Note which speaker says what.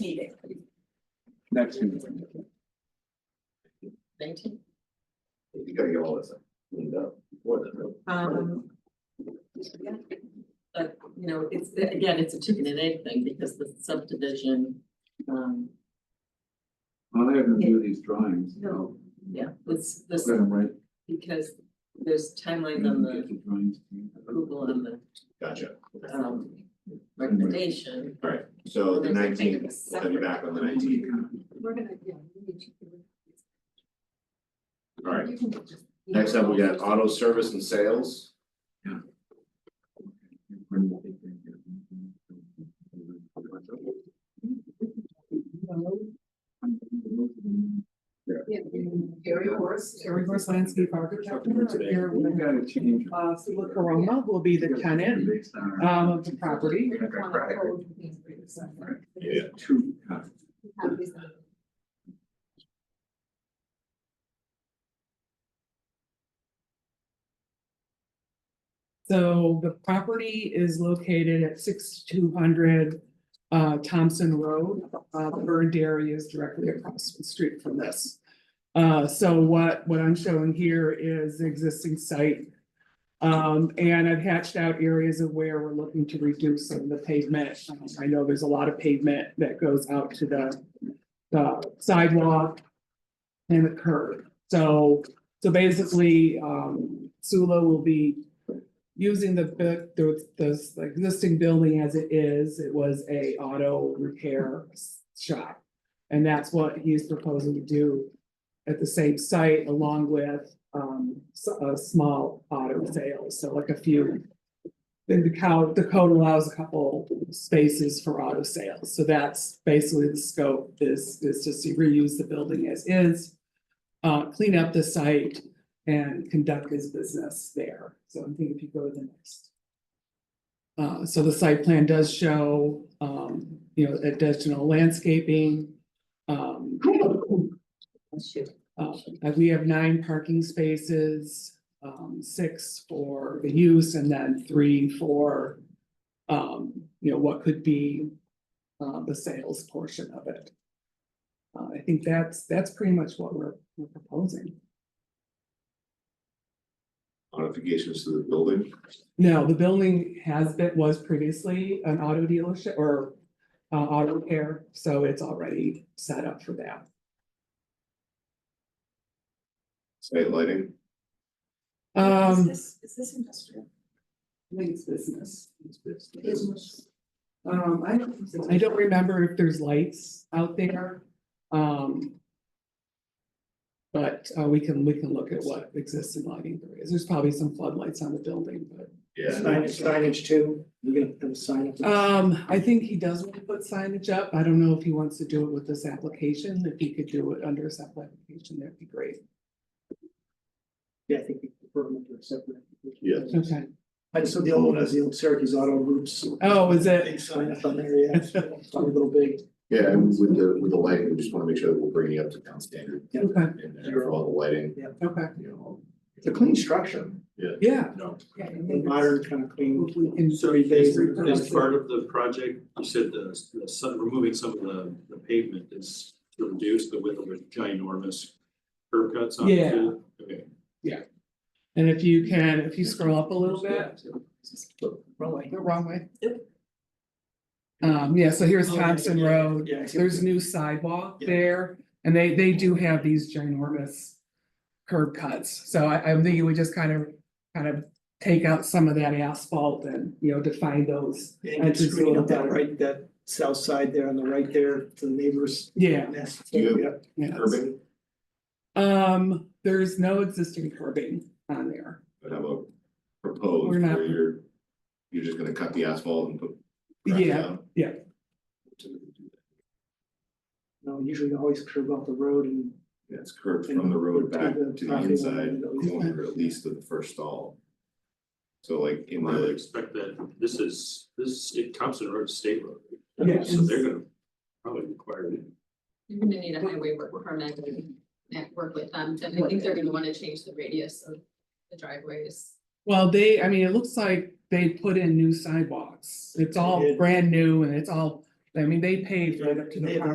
Speaker 1: next meeting.
Speaker 2: Nineteen.
Speaker 3: You gotta get all this cleaned up before then.
Speaker 2: Um. yeah. But, you know, it's, again, it's a chicken and egg thing because the subdivision, um,
Speaker 1: I'll have them do these drawings.
Speaker 2: No. yeah, was this,
Speaker 1: Let them write.
Speaker 2: because there's timelines on
Speaker 1: Get
Speaker 2: the
Speaker 1: the drawings. to you.
Speaker 2: approval and the,
Speaker 3: Gotcha.
Speaker 2: um, recommendation.
Speaker 3: All right, so the
Speaker 2: There's a thing
Speaker 3: nineteenth,
Speaker 2: that's
Speaker 3: we'll have you back on the
Speaker 2: separate.
Speaker 3: nineteenth.
Speaker 4: We're gonna, yeah. we need to-
Speaker 3: All right,
Speaker 4: you can just-
Speaker 3: next up, we got auto service and sales.
Speaker 4: Yeah. Area horse.
Speaker 5: Air Force Landscape Architecture, here
Speaker 1: We
Speaker 5: with,
Speaker 1: gotta change. it.
Speaker 5: uh, Sula Corona will be the tenant,
Speaker 1: Based on our-
Speaker 5: um, of the property.
Speaker 3: Yeah.
Speaker 1: Two. uh,
Speaker 5: So the property is located at sixty-two hundred, uh, Thompson Road. Uh, the Bird Dairy is directly across the street from this. Uh, so what, what I'm showing here is the existing site. Um, and I've hatched out areas of where we're looking to reduce some of the pavement. Um, I know there's a lot of pavement that goes out to the, the sidewalk and the curb. So, so basically, um, Sula will be using the, bu- the, the the existing building as it is, it was a auto repair s- shop. And that's what he's proposing to do at the same site along with, um, s- a small auto sales, so like a few. Then the code, the code allows a couple spaces for auto sales, so that's basically the scope is, is just to reuse the building as is. Uh, clean up the site and conduct his business there. So I think if you go to the next. Uh, so the site plan does show, um, you know, additional landscaping. Um, uh, and we have nine parking spaces, um, six for the use and then three for, um, you know, what could be, uh, the sales portion of it. Uh, I think that's, that's pretty much what we're, we're proposing.
Speaker 3: Modifications to the building,
Speaker 5: No, the building has been, was previously an auto dealership or uh, auto repair, so it's already set up for that.
Speaker 3: site lighting,
Speaker 5: Um,
Speaker 4: Is this industrial?
Speaker 5: I think it's business.
Speaker 4: Business.
Speaker 5: Um, I don't, I don't remember if there's lights out there. Um. But uh, we can, we can look at what existing lighting there is. There's probably some floodlights on the building, but.
Speaker 3: yeah.
Speaker 6: Signage, signage too, you're gonna have a sign up.
Speaker 5: Um, I think he does want to put signage up. I don't know if he wants to do it with this application. If he could do it under a separate application, that'd be great.
Speaker 6: Yeah, I think we prefer them to accept that.
Speaker 3: Yeah.
Speaker 5: Okay.
Speaker 6: I just saw the old one, as the old Syracuse Auto Groups.
Speaker 5: Oh, is it?
Speaker 6: Big sign up on there, yeah, it's a little big,
Speaker 3: Yeah, and with the, with the lighting, we just wanna make sure that we're bringing it up to town standard
Speaker 5: Okay,
Speaker 3: and and for all the lighting,
Speaker 5: okay.
Speaker 3: you know.
Speaker 6: it's a clean structure,
Speaker 5: Yeah.
Speaker 3: No.
Speaker 6: modern, kind of clean,
Speaker 5: If we can-
Speaker 7: So
Speaker 6: three days.
Speaker 7: As part of the project, you said the, the sun, removing some of the, the pavement is to reduce the width of the ginormous curb cuts on.
Speaker 5: Yeah.
Speaker 7: Okay.
Speaker 5: And if you can, if you scroll up a little bit,
Speaker 6: Wrong way.
Speaker 5: the wrong way. Um, yeah, so here's Thompson Road.
Speaker 6: Oh, Yeah. I see.
Speaker 5: There's new sidewalk
Speaker 6: Yeah.
Speaker 5: there, and they, they do have these ginormous curb cuts. So I, I'm thinking we just kind of, kind of take out some of that asphalt and, you know, define those.
Speaker 6: And
Speaker 5: That's
Speaker 6: it's
Speaker 5: a
Speaker 6: screened
Speaker 5: little
Speaker 6: up that
Speaker 5: better.
Speaker 6: right, that south side there on the right there, to the neighbors.
Speaker 5: Yeah,
Speaker 6: Nest,
Speaker 3: Yeah.
Speaker 6: yeah.
Speaker 5: yeah.
Speaker 3: Curbing,
Speaker 5: Um, there's no existing curbing on there.
Speaker 3: but have a proposed
Speaker 5: We're not-
Speaker 3: where you're, you're just gonna cut the asphalt and put. crack it
Speaker 5: Yeah,
Speaker 3: down?
Speaker 5: yeah.
Speaker 6: No, usually you always curve off the road and
Speaker 3: Yeah, it's curved from the road back to the inside, going at least to the first stall. So like in
Speaker 7: I would
Speaker 3: the,
Speaker 7: expect that this is, this, it Thompson Road is State Road.
Speaker 5: Yeah.
Speaker 7: So they're gonna probably require it.
Speaker 2: You're gonna need a highway work permit and and work with them, and I think they're gonna wanna change the radius of the driveways.
Speaker 5: Well, they, I mean, it looks like they put in new sidewalks. It's all
Speaker 6: did.
Speaker 5: brand new and it's all, I mean, they paved right up to the.
Speaker 6: They had
Speaker 5: park.